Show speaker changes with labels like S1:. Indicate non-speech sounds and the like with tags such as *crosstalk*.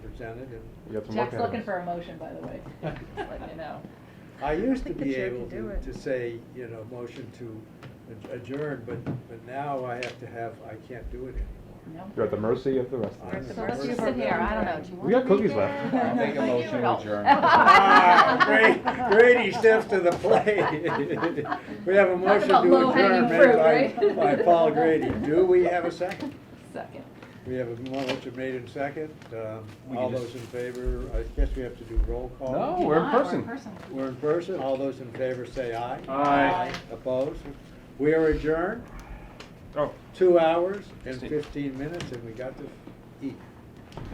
S1: on it and.
S2: You got some work ahead
S3: Jack's
S2: of
S3: looking
S2: us.
S3: for a motion, by the way, just letting
S2: *laughs*
S3: you know.
S1: I used to
S4: think the
S1: be
S4: chair
S1: able
S4: can
S1: to,
S4: do it.
S1: to say, you know, motion to ad- adjourn, but, but now I have to have, I can't do it anymore.
S3: No?
S2: You're at the mercy of the rest of
S1: I'm
S2: us.
S1: the
S3: So let's
S1: mercy
S3: just
S1: of our
S3: sit here, I don't
S4: government.
S3: know, do you
S2: We
S3: want?
S2: got cookies left.
S3: *laughs*
S5: I'll make a motion to adjourn.
S1: Ah, Gra- Grady steps to the plate. *laughs* We have a
S3: Talk
S1: motion
S3: about
S1: to adjourn
S3: low-hanging fruit,
S1: made
S3: right?
S1: by, by Paul Grady. Do we have a second?
S3: Second.
S1: We have a motion made in second. Um,
S5: We
S1: All
S5: can just-
S1: those in favor, I guess we have to do roll call.
S2: No,
S3: If you
S2: Oh, we're in
S3: want, or
S2: person.
S1: We're in person. All those in favor say aye.
S2: Aye.
S1: Opposed? We are adjourned,
S2: Oh,
S1: two hours and
S2: Sixteen.
S1: fifteen minutes, and we got this